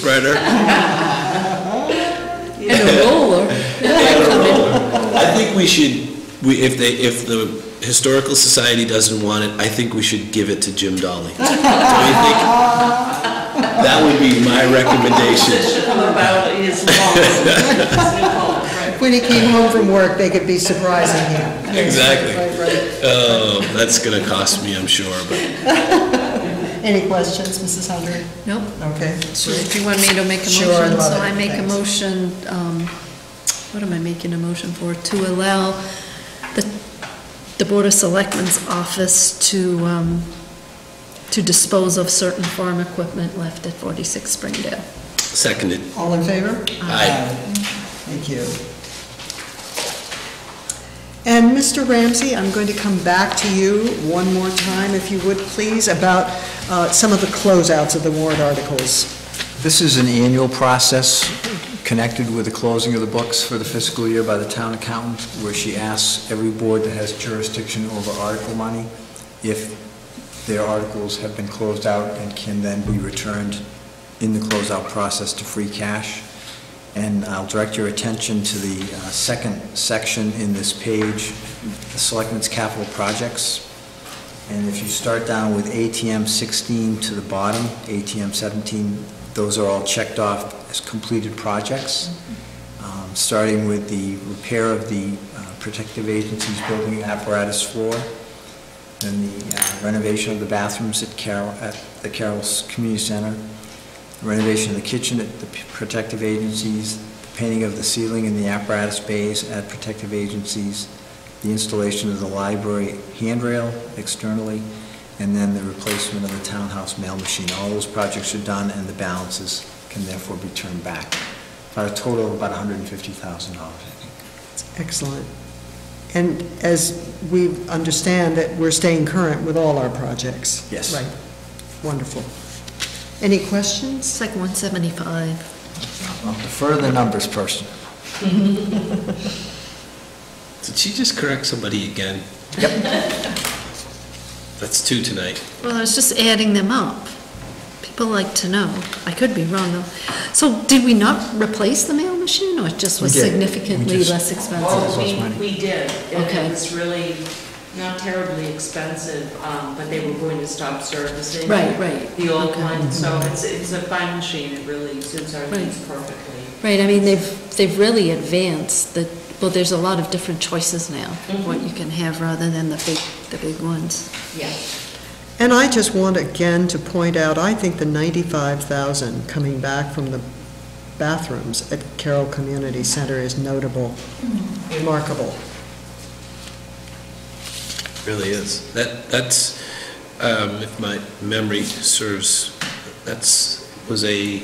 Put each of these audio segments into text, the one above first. spreader. And a roller. I don't know. I think we should, we, if they, if the Historical Society doesn't want it, I think we should give it to Jim Dolly. Don't you think? That would be my recommendation. Position about his loss. His new home, right. When he came home from work, they could be surprising him. Exactly. Right, right. Oh, that's gonna cost me, I'm sure, but Any questions, Mrs. Hunter? Nope. Okay. So if you want me to make a Sure, I'd motion, love so it. I make a Thanks. motion, um, what am I making a motion for? To allow the, the Board of Selectmen's office to, um, to dispose of certain farm equipment left at 46 Springdale. seconded. All in favor? Aye. Thank you. And Mr. Ramsey, I'm going to come back to you one more time, if you would, please, about uh, some of the closeouts of the warrant articles. This is an annual process connected with the closing of the books for the fiscal year by the town accountant, where she asks every board that has jurisdiction over article money if their articles have been closed out and can then be returned in the closeout process to free cash. And I'll direct your attention to the uh, second section in this page, the Selectmen's Capital Projects. And if you start down with ATM 16 to the bottom, ATM 17, those are all checked off as completed projects, Um, starting with the repair of the uh, protective agency's building apparatus floor, then the uh, renovation of the bathrooms at Carroll, at the Carroll's Community Center, renovation of the kitchen at the protective agencies, painting of the ceiling in the apparatus bays at protective agencies, the installation of the library handrail externally, and then the replacement of the townhouse mail machine. All those projects are done, and the balances can therefore be turned back. For a total of about $150,000, I think. Excellent. And as we understand that we're staying current with all our projects. Yes. Right. Wonderful. Any questions? It's like 175. I'll defer the numbers person. Did she just correct somebody again? Yep. That's two tonight. Well, I was just adding them up. People like to know. I could be wrong, though. So did we not replace the mail machine, or it just We was did. We significantly just- less expensive? Well- Cost Well, money. we, we did. and Okay. It was really not terribly expensive, um, but they were going to stop servicing. Right, right. The old Okay. one, so it's, it's a fine machine, it really suits our needs Right. perfectly. Right, I mean, they've, they've really advanced the, well, there's a lot of different choices now, what you can have rather than the big, the big ones. Yeah. And I just want again to point out, I think the 95,000 coming back from the bathrooms at Carroll Community Center is notable, remarkable. Really is. That, that's, um, if my memory serves, that's, was a,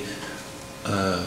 uh,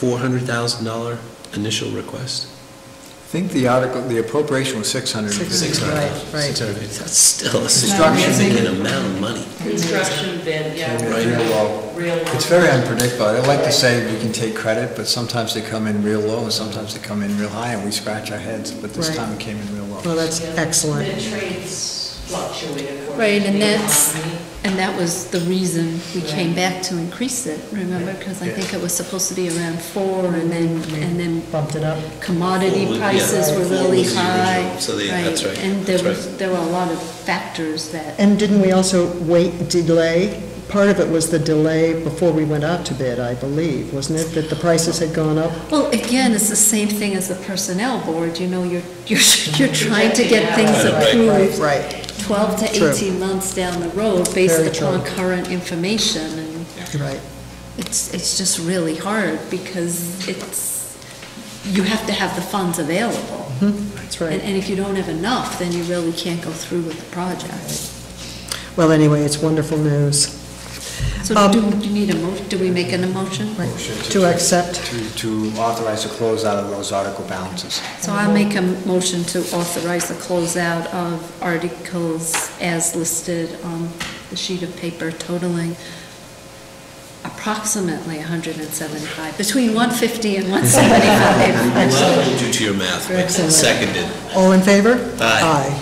four hundred thousand dollar initial request? I think the article, the appropriation was 650. Six hundred Right, right. Six hundred. That's still a Construction. significant amount of money. Construction bid, yeah. Right. Real low. Real low. It's very unpredictable. I like to say we can take credit, but sometimes they come in real low, and sometimes they come in real high, and we scratch our heads, but this Right. time it came in real Well, low. that's Yeah. excellent. The trades fluctuate according Right, to and the that's- economy. And that was the reason we came back to increase it, remember? Because I Yeah. think it was supposed to be around four, and then, and then Bumped it up. Mm-hmm. Four commodity was- yeah, prices four were really was the original, high. so they- that's right, And there that's right. was, there were a lot of factors that, And didn't we also wait, delay? Part of it was the delay before we went out to bid, I believe, wasn't it, that the prices had gone up? well, again, it's the same thing as the personnel board, you know, you're, you're, you're trying to get things Mm-hmm. Right, right. approved Right, 12 to True. 18 months down the road based Very upon true. current information. And right. it's, it's just really hard because it's, you have to have the funds available. That's And, right. and if you don't have enough, then you really can't go through with the project. Well, anyway, it's wonderful news. So Um, do you need a mo, do we make an emotion? Right. Motion To accept, To, to authorize the closeout of those article balances. So I'll make a motion to authorize the closeout of articles as listed on the sheet of paper totaling approximately 175, between 150 and 175. Well, we'll do to your math, but Excellent. seconded. all in favor? Aye.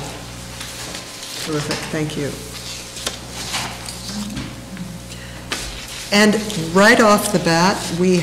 Terrific, thank you. And right off the bat, we